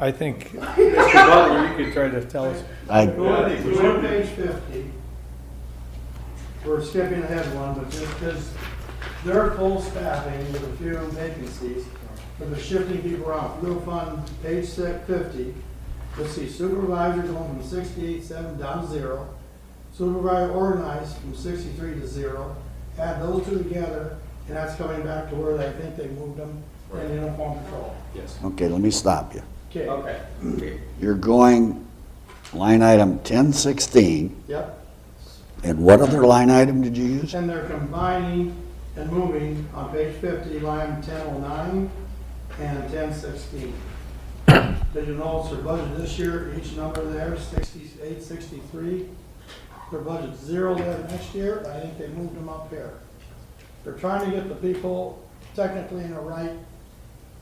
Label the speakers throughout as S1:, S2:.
S1: I think, Mr. Butler, you could try to tell us.
S2: I,
S3: Go on, go on page fifty. We're skipping ahead one, but just because they're full staffing with a few vacancies, but they're shifting people around. Real fund, page six, fifty, let's see supervisor going from sixty-eight, seven down to zero. Supervisor organized from sixty-three to zero. Add those two together, and that's coming back to where they think they moved them
S4: Right.
S3: in uniform patrol.
S4: Yes.
S2: okay, let me stop you.
S3: Okay,
S4: Okay.
S2: You're going line item ten sixteen,
S3: yep.
S2: and what other line item did you use?
S3: And they're combining and moving on page fifty, line ten oh nine and ten sixteen. Did you notice their budget this year, each number there, sixty-eight, sixty-three? Their budget's zero there next year, I think they moved them up here. They're trying to get the people technically in the right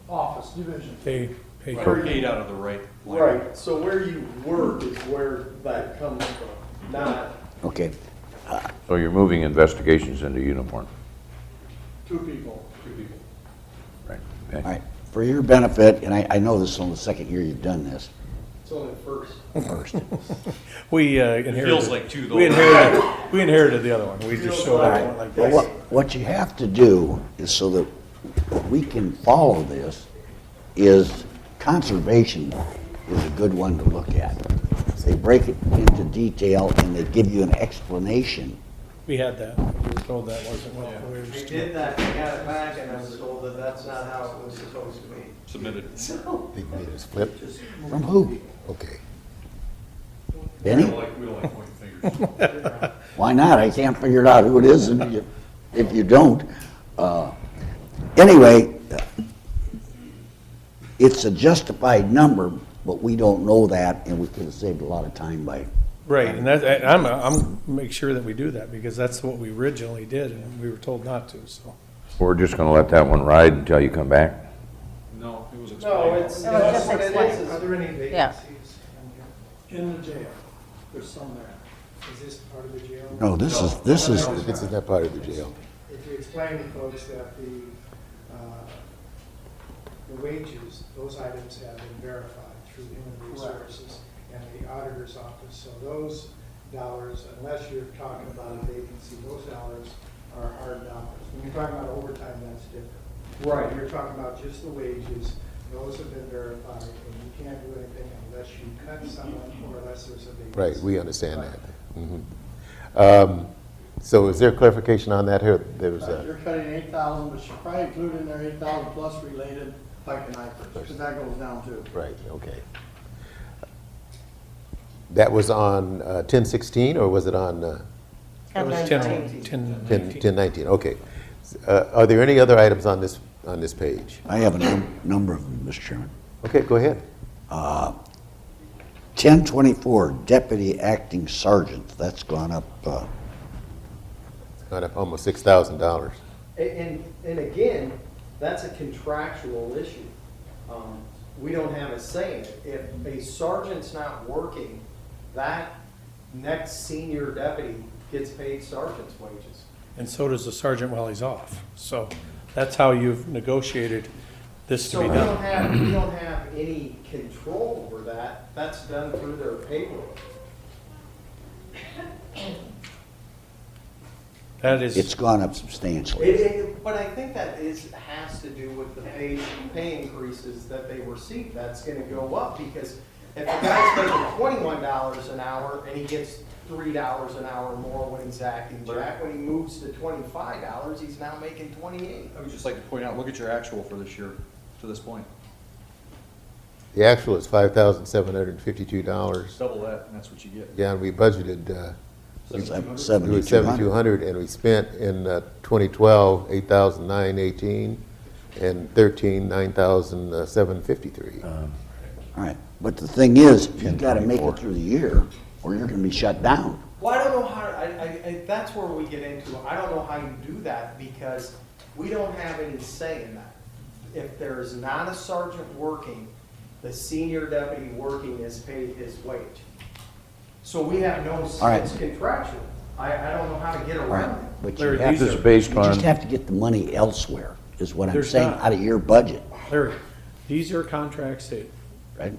S3: office, division.
S1: They, they-
S4: Purgate out of the right. line.
S5: Right, so where you work is where that comes from, not,
S2: Okay,
S6: So you're moving investigations into uniform,
S3: Two people.
S6: right?
S2: all
S6: Okay.
S2: right, for your benefit, and I, I know this is only the second year you've done this,
S5: it's only first.
S1: we uh, inherited.
S4: feels like two, though.
S1: We inherited, we inherited the other one. We just showed up one like
S2: But
S1: this.
S2: what, what you have to do is so that we can follow this, is conservation is a good one to look at. They break it into detail and they give you an explanation.
S1: We had that. We were told that wasn't what we were
S5: We
S1: just.
S5: did that, we got it back, and I was told that that's not how it was supposed to be.
S4: Submitted.
S7: Big meters flip,
S2: From who?
S7: okay.
S2: Benny?
S4: we don't like pointing fingers.
S2: Why not? I can't figure it out who it is if you, if you don't. Uh, Anyway, it's a justified number, but we don't know that, and we could have saved a lot of time by,
S1: Right, and that, and I'm, I'm, make sure that we do that because that's what we originally did and we were told not to, so.
S6: We're just going to let that one ride until you come back?
S4: No, it was
S5: No,
S4: explained.
S5: it's, it's
S8: No, it's just
S5: what it is,
S8: explained.
S5: is there any
S8: Yeah.
S5: vacancies?
S3: In the jail, there's some there. Is this part of the jail?
S2: no, this is, this is,
S7: This is not part of the jail.
S9: if you explain to folks that the, uh, the wages, those items have been verified through human resources and the auditor's office, so those dollars, unless you're talking about a vacancy, those dollars are hard dollars. When you're talking about overtime, that's different. Right. You're talking about just the wages, those have been verified, and you can't do anything unless you cut someone or unless there's a vacancy.
S7: Right, we understand that. Mhm. Um, So is there clarification on that here? There was
S3: Uh,
S7: a,
S3: You're cutting eight thousand, but you should probably include in there eight thousand plus related like and IFRS, because that goes down too.
S7: right, okay. That was on uh, 1016, or was it on uh,
S1: It was 10, 10,
S7: 10 1019? Okay. S- uh, Are there any other items on this, on this page?
S2: I have a num- number of them, Mr. Chairman.
S7: Okay, go ahead.
S2: 1024, deputy acting sergeant, that's gone up, uh,
S7: Got up almost $6,000.
S5: A- And, and again, that's a contractual issue. Um, We don't have a say in it. If a sergeant's not working, that next senior deputy gets paid sergeant's wages.
S1: and so does the sergeant while he's off. So that's how you've negotiated this to
S5: So
S1: be
S5: we
S1: done.
S5: don't have, we don't have any control over that. That's done through their payroll.
S1: That
S2: it's
S1: is,
S2: gone up
S5: It,
S2: substantially.
S5: it, but I think that is, has to do with the pay, pay increases that they receive, that's gonna go up, because if a guy's making twenty-one dollars an hour and he gets three dollars an hour more when he's acting jack, when he moves to twenty-five dollars, he's now making twenty-eight.
S4: I would just like to point out, look at your actual for this year, to this point.
S7: The actual is $5,752.
S4: Double that, and that's what you get.
S7: Yeah, and we budgeted uh,
S2: Seven-
S7: It was
S2: 7,200.
S7: 7,200, and we spent in uh, 2012, 8,918, and 13, uh, 9,753.
S2: All right, but the thing is, you've got to make it through the year, or you're going to be shut down.
S5: Well, I don't know how, I, I, I, that's where we get into, I don't know how you do that, because we don't have any say in that. If there is not a sergeant working, the senior deputy working is paid his wage. So we have no,
S2: All right.
S5: it's contractual, I, I don't know how to get
S2: All right,
S5: around
S2: but you
S1: Larry,
S2: have
S1: these
S2: to,
S1: are-
S6: This is based
S2: you just
S6: on,
S2: have to get the money elsewhere, is what I'm
S1: There's
S2: saying,
S1: not.
S2: out of your budget,
S1: Larry, these are contracts that
S2: right?